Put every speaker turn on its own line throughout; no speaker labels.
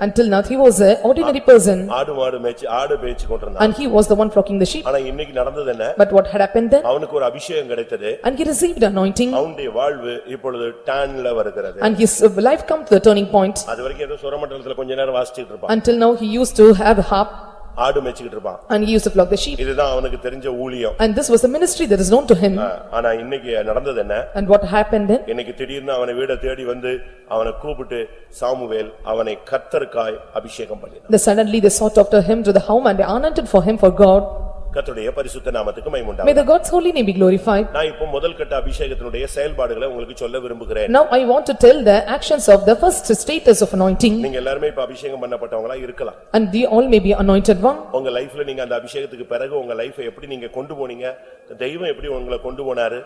Until now, he was an ordinary person
ஆடு மாடு மேய்ச்சி ஆடு மேய்ச்சி கொண்டிருந்தான்
and he was the one flocking the sheep.
ஆனா இன்னைக்கு நடந்தது என்ன
But what had happened then?
அவனுக்கு ஒரு அபிஷேகம் கிடைத்தது
And he received anointing
அவனுடைய வாழ்வு இப்பொழுது டான்ல வருகிறது
and his life come to the turning point.
அது வரைக்கும் ஏதோ சுரமண்டலத்துல கொஞ்ச நேரம் வாசிச்சுட்டு இருப்பான்
Until now, he used to have a harp
ஆடு மேய்ச்சிக்கிட்டு இருப்பான்
and he used to flock the sheep.
இதுதான் அவனுக்கு தெரிஞ்ச ஊழியம்
And this was a ministry that is known to him.
ஆனா இன்னைக்கு நடந்தது என்ன
And what happened then?
இன்னைக்கு திடீர்னு அவனை வீட தேடி வந்து அவனை கூப்பிட்டு சாமுவேல் அவனை கத்தருக்காய் அபிஷேகம் பண்ணினான்
They suddenly they sought after him to the home and they anointed for him for God.
கர்த்தருடைய பரிசுத்த நாமத்துக்கு
May
மைமுண்டாம்
the God's holy name be glorified.
நான் இப்போ முதல் கட்ட அபிஷேகத்தினுடைய செயல்பாடுகளை உங்களுக்கு சொல்ல விரும்புகிறேன்
Now I want to tell the actions of the first status of anointing
நீங்க எல்லாருமே இப்ப அபிஷேகம் பண்ணப்பட்டவங்களா இருக்கலாம்
and they all may be anointed one.
உங்க லைஃப்ல நீங்க அந்த அபிஷேகத்துக்கு பிறகு உங்க லைஃபை எப்படி நீங்க கொண்டு போனீங்க தெய்வம் எப்படி உங்களை கொண்டு போனாரு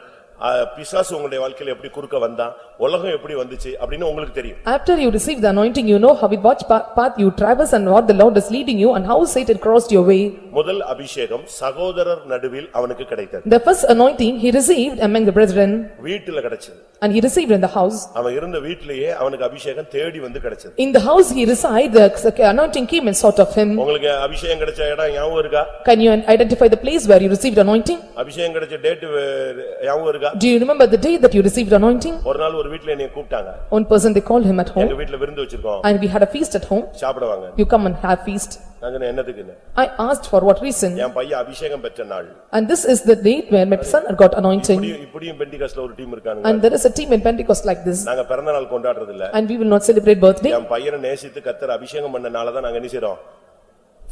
ஆ, பிசாசு உங்களுடைய வாழ்க்கையில எப்படி குறுக்க வந்தான் உலகம் எப்படி வந்துச்சு அப்படின்னு உங்களுக்கு தெரியும்
After you receive the anointing, you know how with what pa- path you traverse and what the Lord is leading you and how Satan crossed your way.
முதல் அபிஷேகம் சகோதரர் நடுவில் அவனுக்கு கிடைத்தது
The first anointing he received among the brethren
வீட்டுல கிடைச்சது
and he received in the house.
அவன் இருந்த வீட்டிலேயே அவனுக்கு அபிஷேகம் தேடி வந்து கிடைச்சது
In the house he reside, the anointing came and sought of him.
உங்களுக்கு அபிஷேகம் கிடைச்ச இடம் ஞாபகம் இருக்கா
Can you identify the place where you received anointing?
அபிஷேகம் கிடைச்ச டேட் ஞாபகம் இருக்கா
Do you remember the day that you received anointing?
ஒரு நாள் ஒரு வீட்ல என்னைய கூப்பிட்டாங்க
One person they called him at
எங்க
home
வீட்ல விருந்து வச்சிருக்கோம்
and we had a feast at home.
சாப்பிடுவாங்க
You come and have feast.
நான் சொன்னேன், என்னத்துக்கு இல்ல
I asked for what reason
என் பையன் அபிஷேகம் பெற்ற நாள்
and this is the date where my son got anointing.
இப்படியும் இப்படியும் பெண்டிகாஸ்ல ஒரு டீம் இருக்கானுங்க
And there is a team in Pentecost like this
நாங்க பிறந்த நாள் கொண்டாடுறது இல்ல
and we will not celebrate birthday
என் பையனை நேசித்து கத்தர் அபிஷேகம் பண்ணனால தான் நாங்க என்ன செய்றோம்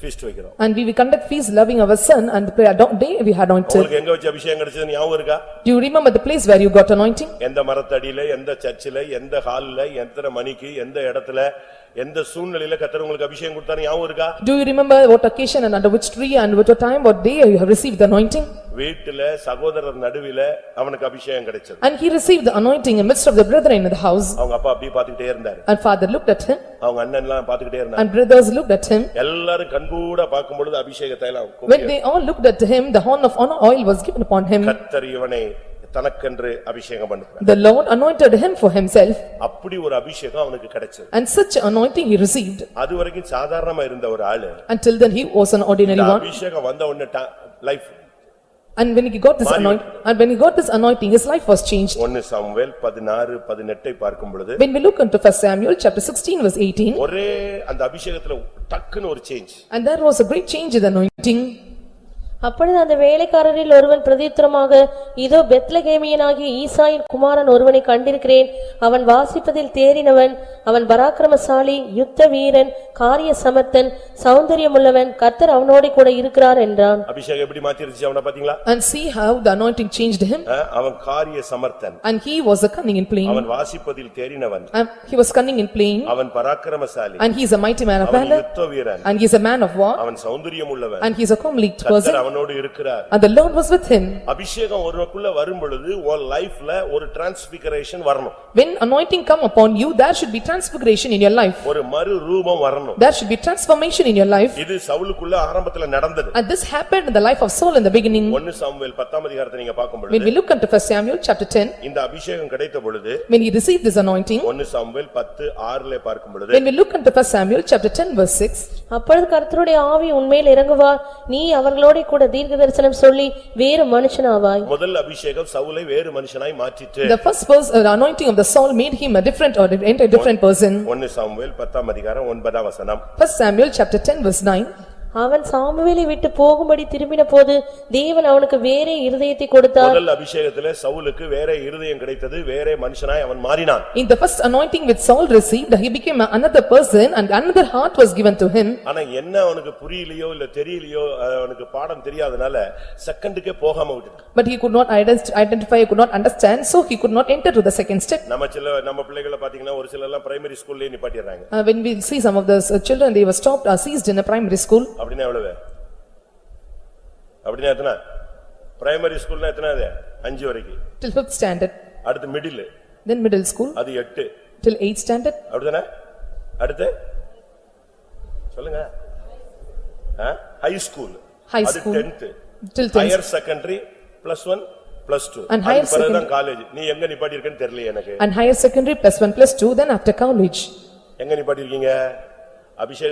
ஃபீஸ்ட் வைக்கிறோம்
and we will conduct feast loving our son and the prayer do- day we had anointed.
உங்களுக்கு எங்க வச்சு அபிஷேகம் கிடைச்சது ஞாபகம் இருக்கா
Do you remember the place where you got anointing?
எந்த மரத்தடியில எந்த சர்ச்சில எந்த ஹால்ல எத்தனை மணிக்கு எந்த இடத்துல எந்த சூழ்நிலையில கத்தர் உங்களுக்கு அபிஷேகம் கொடுத்தாரு ஞாபகம் இருக்கா
Do you remember what occasion and under which tree and what time, what day you have received the anointing?
வீட்டுல சகோதரர் நடுவில அவனுக்கு அபிஷேகம் கிடைச்சது
And he received the anointing in midst of the brethren in the house
அவங்க அப்பா அப்படியே பாத்துக்கிட்டே இருந்தாரு
and father looked at him
அவங்க அண்ணன் எல்லாம் பாத்துக்கிட்டே இருந்தாரு
and brothers looked at him.
எல்லாரும் கண்கூட பார்க்கும் பொழுது அபிஷேகத்தை எல்லாம்
When
கூப்பிட்டு,
they all looked at him, the horn of honor oil was given upon him.
கர்த்தர் இவனை தனக்கென்று அபிஷேகம் பண்ணுகிறார்
The Lord anointed him for himself
அப்படி ஒரு அபிஷேகம் அவனுக்கு கிடைச்சது
and such anointing he received.
அது வரைக்கும் சாதாரணமா இருந்த ஒரு ஆளு
Until then he was an ordinary
இந்த
one
அபிஷேகம் வந்த உடனே life
and when he got this anoint and when he got this anointing, his life was changed.
ஒன்னு சாமுவேல் பதினாறு பதினெட்டை பார்க்கும் பொழுது
When we look into first Samuel, chapter sixteen verse eighteen,
ஒரே அந்த அபிஷேகத்துல டக்குன்னு ஒரு change
and there was a great change in the anointing.
அப்பொழுது அந்த வேலைக்காரரில் ஒருவன் பிரதித்திரமாக இதோ பெத்லகேமியனாகிய ஈசாயின் குமாரன் ஒருவனை கண்டிருக்கிறேன் அவன் வாசிப்பதில் தேறினவன் அவன் பராக்கிரமசாலி யுத்த வீரன் காரிய சமர்த்தன் சௌந்தரியமுள்ளவன் கர்த்தர் அவனோடு கூட இருக்கிறார் என்றான்
அபிஷேகம் எப்படி மாத்திருச்சு அவன பாத்தீங்களா
And see how the anointing changed him
அஹ், அவன் காரிய சமர்த்தன்
and he was a cunning in playing.
அவன் வாசிப்பதில் தேறினவன்
And he was cunning in playing
அவன் பராக்கிரமசாலி
and he is a mighty man of
அவன்
valor
யுத்த வீரன்
and he is a man of war
அவன் சௌந்தரியம் உள்ளவன்
and he is a comely person
கர்த்தர் அவனோடு இருக்கிறார்
and the Lord was with him.
அபிஷேகம் ஒருவனுக்குள்ள வரும் பொழுது உன் லைஃப்ல ஒரு டிரான்ஸ்பிகரேஷன் வரணும்
When anointing come upon you, there should be transfiguration in your life.
ஒரு மறு ரூபம் வரணும்
There should be transformation in your life.
இது சவுலுக்குள்ள ஆரம்பத்துல நடந்தது
And this happened in the life of Saul in the beginning.
ஒன்னு Samuel பத்தாம் அதிகாரத்தை நீங்க பார்க்கும்
When
பொழுது
we look into first Samuel chapter ten,
இந்த அபிஷேகம் கிடைத்த பொழுது
when he received this anointing,
ஒன்னு சாமுவேல் பத்து ஆறுல பார்க்கும் பொழுது
when we look into first Samuel chapter ten verse six,
அப்பொழுது கர்த்தருடைய ஆவி உன்மேல் இறங்குவார் நீ அவர்களோடே கூட தீர்க்க தரிசனம் சொல்லி வேறு மனுஷனாவாய்
முதல் அபிஷேகம் சவுலை வேறு மனுஷனாய் மாற்றிட்டு
the first verse, uh, the anointing of the Saul made him a different or an entire different person.
ஒன்னு சாமுவேல் பத்தாம் அதிகாரம் ஒன்பதாம் வசனம்
First Samuel chapter ten verse nine,
அவன் சாமுவேலை விட்டு போகும்படி திரும்பின போது தேவன் அவனுக்கு வேறே இருதயத்தை கொடுத்தார்
முதல் அபிஷேகத்துல சவுலுக்கு வேற இருதயம் கிடைத்தது வேற மனுஷனாய் அவன் மாறினான்
in the first anointing which Saul received, he became another person and another heart was given to him.
ஆனா என்ன அவனுக்கு புரியலையோ இல்ல தெரியலையோ அஹ், அவனுக்கு பாடம் தெரியாதனால செகண்டுக்கே போகாம விட்டுட்டான்
But he could not ident- identify, could not understand, so he could not enter to the second step.
நம்ம சில நம்ம பிள்ளைகளை பாத்தீங்கன்னா ஒரு சில எல்லாம் பிரைமரி ஸ்கூல்லயே நிப்பாட்டிடுறாங்க
Uh, When we see some of the uh, children, they were stopped or seized in a primary school.
அப்படின்னா எவ்வளவு அப்படின்னா எத்தனை பிரைமரி ஸ்கூல்னா எத்தனை அது அஞ்சு வரைக்கும்
till fifth standard,
அடுத்து மிடில்
then middle school,
அது எட்டு
till eighth standard,
அப்படிதானே அடுத்து சொல்லுங்க ஹை ஸ்கூல்
High
அது
school.
Tenth
till tenth.
Higher secondary plus one plus two
And higher
பிறகுதான் காலேஜ் நீ எங்க நிப்பாட்டி இருக்கேன்னு தெரியல எனக்கு
And higher secondary plus one plus two, then after college.
எங்க நிப்பாட்டி இருக்கீங்க அபிஷேக